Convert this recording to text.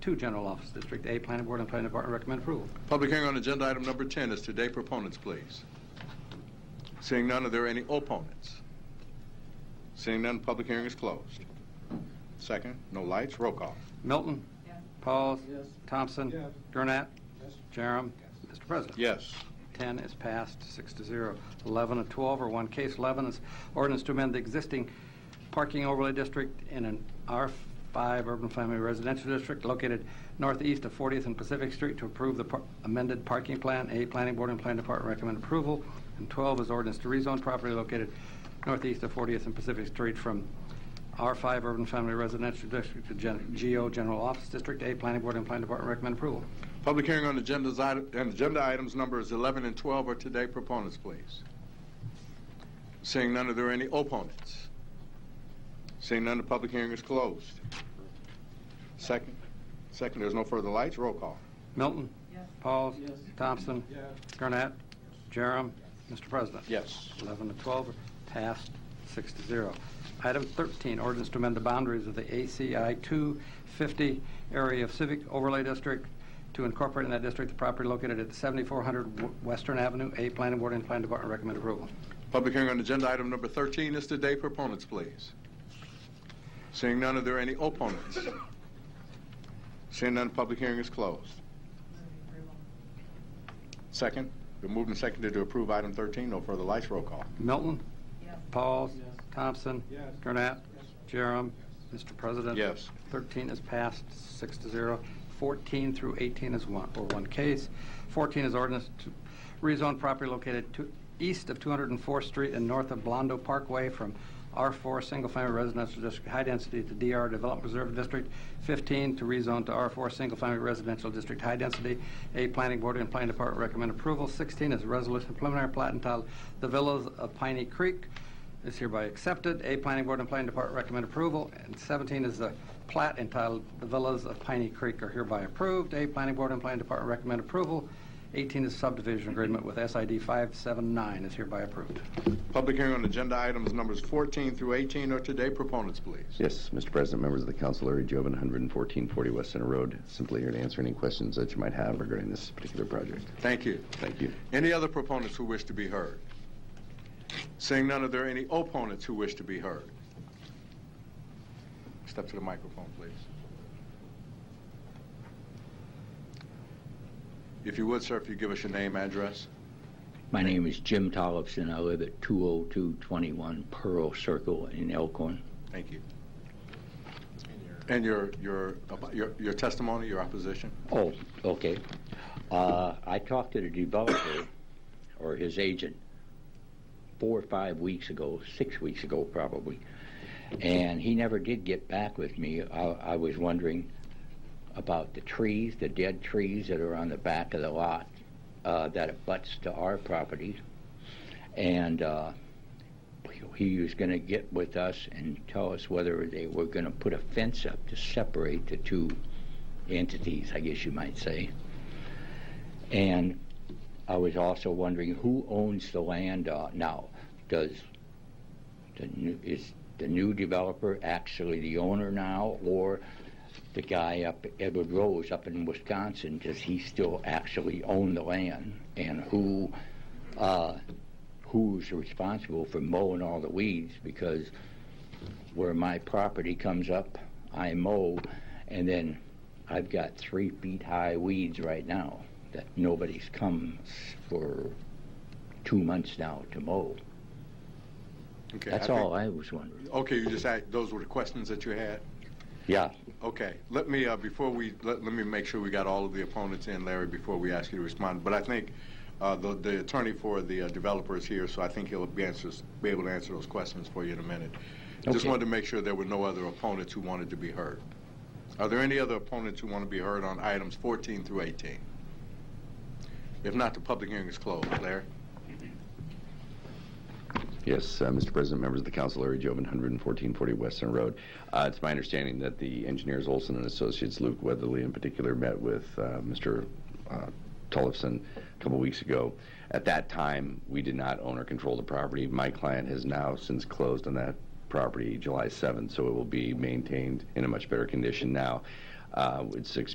two, General Office, District A, Planning Board and Planning Department recommend approval. Public hearing on agenda item number 10 is today. Proponents, please. Seeing none, are there any opponents? Seeing none, public hearing is closed. Second, no lights, roll call. Milton. Yes. Pauls. Yes. Thompson. Yes. Gurnett. Yes. Jerem. Mr. President. Yes. 10 is passed, six to zero. 11 and 12 are one case. 11 is ordinance to amend the existing parking overlay district in an R5 Urban Family Residential District located northeast of 40th and Pacific Street to approve the par- amended parking plan. A, Planning Board and Planning Department recommend approval. And 12 is ordinance to rezone property located northeast of 40th and Pacific Street from R5 Urban Family Residential District to Gen- GO General Office District. A, Planning Board and Planning Department recommend approval. Public hearing on agendas, ite- and agenda items numbers 11 and 12 are today. Proponents, please. Seeing none, are there any opponents? Seeing none, the public hearing is closed. Second, second, there's no further lights, roll call. Milton. Yes. Pauls. Yes. Thompson. Yes. Gurnett. Jerem. Mr. President. Yes. 11 to 12 are passed, six to zero. Item 13, ordinance to amend the boundaries of the ACI 250 area of civic overlay district to incorporate in that district the property located at 7400 W- Western Avenue. A, Planning Board and Planning Department recommend approval. Public hearing on agenda item number 13 is today. Proponents, please. Seeing none, are there any opponents? Seeing none, public hearing is closed. Second, been moved and seconded to approve item 13. No further lights, roll call. Milton. Yes. Pauls. Yes. Thompson. Yes. Gurnett. Jerem. Mr. President. Yes. 13 is passed, six to zero. 14 through 18 is one, or one case. 14 is ordinance to rezone property located to, east of 204th Street and north of Blondo Parkway from R4 Single Family Residential District High Density to DR Development Reserve District. 15 to rezone to R4 Single Family Residential District High Density. A Planning Board and Planning Department recommend approval. 16 is a resolution preliminary plat entitled The Villas of Piney Creek is hereby accepted. A, Planning Board and Planning Department recommend approval. And 17 is the plat entitled The Villas of Piney Creek are hereby approved. A, Planning Board and Planning Department recommend approval. 18 is subdivision agreement with SID 579 is hereby approved. Public hearing on agenda items numbers 14 through 18 are today. Proponents, please. Yes, Mr. President, members of the council, Larry Jovan, 11440 West Center Road, simply here to answer any questions that you might have regarding this particular project. Thank you. Thank you. Any other proponents who wish to be heard? Seeing none, are there any opponents who wish to be heard? Step to the microphone, please. If you would, sir, if you give us your name, address. My name is Jim Tollefson. I live at 20221 Pearl Circle in Elkhorn. Thank you. And your, your, your your testimony, your opposition? Oh, okay. Uh, I talked to the developer or his agent four or five weeks ago, six weeks ago probably, and he never did get back with me. I, I was wondering about the trees, the dead trees that are on the back of the lot uh, that abuts to our property, and uh, he was going to get with us and tell us whether they were going to put a fence up to separate the two entities, I guess you might say. And I was also wondering who owns the land uh, now? Does the new, is the new developer actually the owner now, or the guy up Edward Rose up in Wisconsin? Does he still actually own the land, and who uh, who's responsible for mowing all the weeds? Because where my property comes up, I mow, and then I've got three feet high weeds right now that nobody's come s- for two months now to mow. Okay, That's think- all I was wondering. Okay, you just had, those were the questions that you had? Yeah. Okay, let me, uh, before we, let, let me make sure we got all of the opponents in, Larry, before we ask you to respond. But I think, uh, the, the attorney for the uh, developer is here, so I think he'll be answers, be able to answer those questions for you in a minute. Just Okay. wanted to make sure there were no other opponents who wanted to be heard. Are there any other opponents who want to be heard on items fourteen through eighteen? If not, the public hearing is closed. Larry? Yes, uh, Mr. President, members of the council, Larry Jovan, 11440 West Center Road. Uh, It's my understanding that the engineers Olson and Associates, Luke Weatherly in particular, met with uh, Mr. uh, Tollefson a couple weeks ago. At that time, we did not own or control the property. My client has now since closed on that property July 7th, so it will be maintained in a much better condition now. Uh, It's expected